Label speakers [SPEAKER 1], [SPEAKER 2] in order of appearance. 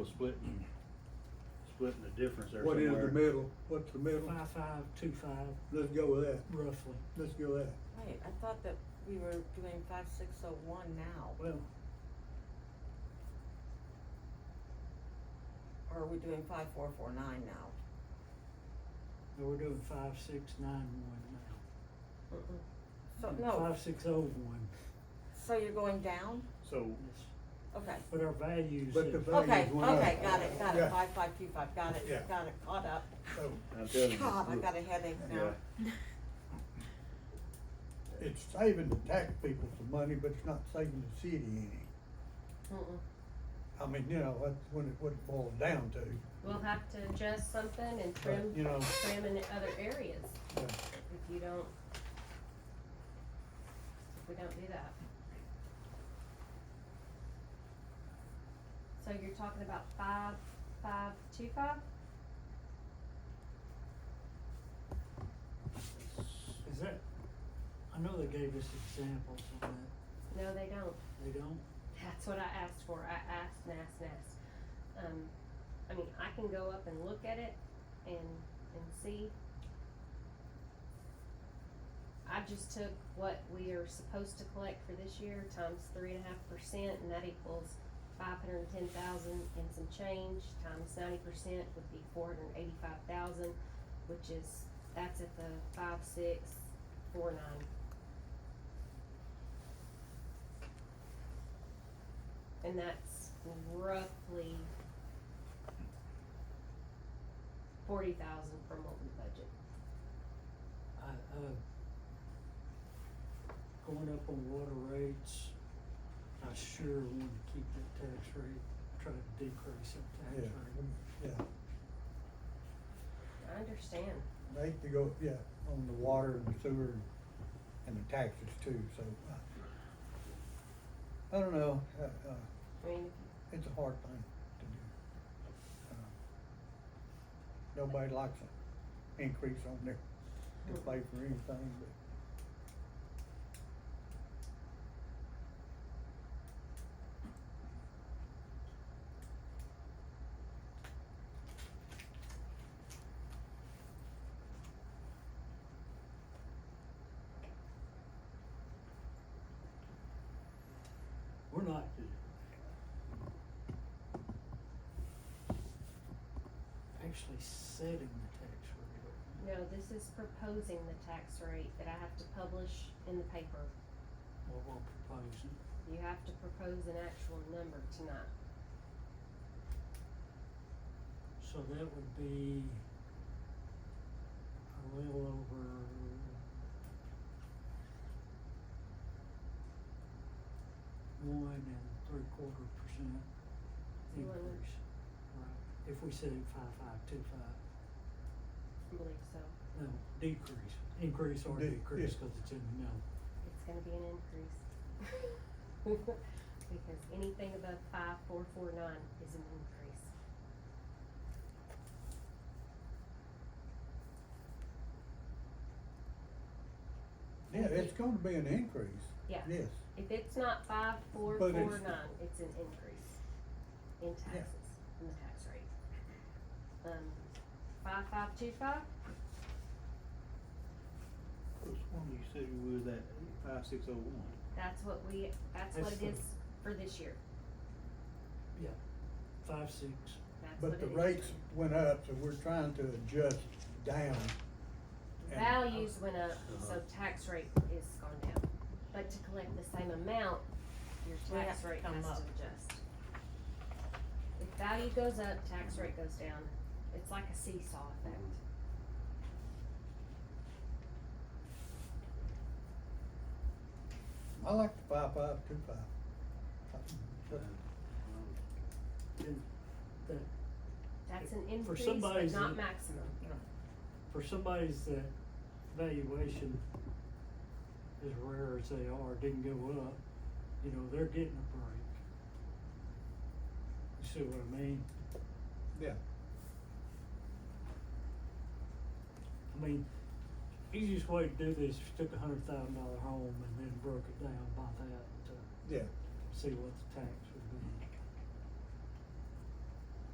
[SPEAKER 1] So Splitting, splitting the difference there
[SPEAKER 2] What
[SPEAKER 1] somewhere.
[SPEAKER 2] is the middle? What's the middle?
[SPEAKER 3] Five, five, two, five,
[SPEAKER 2] Let's go with that.
[SPEAKER 3] roughly.
[SPEAKER 2] Let's go with that.
[SPEAKER 4] Wait, I thought that we were doing five, six, oh, one now,
[SPEAKER 3] Well,
[SPEAKER 4] or are we doing five, four, four, nine now?
[SPEAKER 3] no, we're doing five, six, nine, one now.
[SPEAKER 4] So,
[SPEAKER 3] And
[SPEAKER 4] no,
[SPEAKER 3] Five, six, oh, one.
[SPEAKER 4] so you're going down?
[SPEAKER 1] So,
[SPEAKER 3] Yes.
[SPEAKER 4] Okay.
[SPEAKER 3] But our values
[SPEAKER 2] But the
[SPEAKER 3] is,
[SPEAKER 2] va-
[SPEAKER 4] Okay,
[SPEAKER 2] values went
[SPEAKER 4] okay,
[SPEAKER 2] up.
[SPEAKER 4] got it, got
[SPEAKER 2] Yeah.
[SPEAKER 4] it, five, five, two, five, got it,
[SPEAKER 2] Yeah.
[SPEAKER 4] got it, caught up.
[SPEAKER 2] So
[SPEAKER 1] I'm telling you.
[SPEAKER 4] God, I got a headache now.
[SPEAKER 1] Yeah.
[SPEAKER 2] it's saving the tax people some money, but it's not saving the city any.
[SPEAKER 4] Mm-mm.
[SPEAKER 2] I mean, you know, that's when it, what it boils down to.
[SPEAKER 5] We'll have to adjust something and trim,
[SPEAKER 2] you know-
[SPEAKER 5] trim in other areas
[SPEAKER 2] Yeah.
[SPEAKER 5] if you don't, if we don't do that. So you're talking about five, five, two, five?
[SPEAKER 3] is that, I know they gave us examples of that.
[SPEAKER 5] No, they don't.
[SPEAKER 3] They don't?
[SPEAKER 5] That's what I asked for. I asked and asked and asked. Um, I mean, I can go up and look at it and, and see. I just took what we are supposed to collect for this year times three and a half percent and that equals five hundred and ten thousand and some change times ninety percent would be four hundred and eighty-five thousand, which is, that's at the five, six, four, nine. And that's roughly forty thousand from what we budget.
[SPEAKER 3] I, uh, going up on water rates, I sure want to keep that tax rate, try to decrease that tax
[SPEAKER 2] Yeah,
[SPEAKER 3] rate.
[SPEAKER 2] yeah.
[SPEAKER 5] I understand.
[SPEAKER 2] They have to go, yeah, on the water and the sewer and the taxes too, so. uh, I don't know, uh, uh,
[SPEAKER 5] I mean,
[SPEAKER 2] it's a hard thing to do. Uh, Nobody likes an increase on their, their pay for anything, but.
[SPEAKER 3] We're not, actually setting the tax rate.
[SPEAKER 5] no, this is proposing the tax rate that I have to publish in the paper.
[SPEAKER 3] what we're proposing.
[SPEAKER 5] You have to propose an actual number tonight.
[SPEAKER 3] So that would be a little over one and three quarter percent
[SPEAKER 5] You wanna-
[SPEAKER 3] increase. Right, if we set it five, five, two, five,
[SPEAKER 5] I believe so.
[SPEAKER 3] no, decrease, increase or
[SPEAKER 2] De- yeah.
[SPEAKER 3] decrease, cause it's in the middle.
[SPEAKER 5] It's gonna be an increase. Because anything above five, four, four, nine is an increase.
[SPEAKER 2] Yeah, it's gonna be an increase.
[SPEAKER 5] Yeah.
[SPEAKER 2] Yes,
[SPEAKER 5] If it's not five, four, four,
[SPEAKER 2] But it's-
[SPEAKER 5] nine, it's an increase in taxes, in the tax rate. Um, five, five, two, five,
[SPEAKER 1] Which one you said you was at, five, six, oh, one?
[SPEAKER 5] that's what we, that's what
[SPEAKER 2] That's
[SPEAKER 5] it is for this year,
[SPEAKER 3] Five, six,
[SPEAKER 5] that's what
[SPEAKER 2] but
[SPEAKER 5] it is.
[SPEAKER 2] the rates went up, so we're trying to adjust down. and-
[SPEAKER 5] Values went up, so
[SPEAKER 1] Uh-huh.
[SPEAKER 5] tax rate is gone down, but to collect the same amount, your
[SPEAKER 4] We have
[SPEAKER 5] tax
[SPEAKER 4] to
[SPEAKER 5] rate
[SPEAKER 4] come
[SPEAKER 5] has to
[SPEAKER 4] up.
[SPEAKER 5] adjust. If value goes up, tax rate goes down, it's like a seesaw effect.
[SPEAKER 4] Mm-hmm.
[SPEAKER 2] I like the five, five, two, five. Something- something.
[SPEAKER 1] Uh,
[SPEAKER 3] then that,
[SPEAKER 5] That's an
[SPEAKER 3] For
[SPEAKER 5] increase, but
[SPEAKER 3] somebody's
[SPEAKER 5] not
[SPEAKER 3] in-
[SPEAKER 5] maximum.
[SPEAKER 3] for somebody's that valuation, as rare as they are, didn't go up, you know, they're getting a break. You see what I mean?
[SPEAKER 2] Yeah,
[SPEAKER 3] I mean, easiest way to do this is took a hundred thousand dollar home and then broke it down by that to
[SPEAKER 2] yeah,
[SPEAKER 3] see what the tax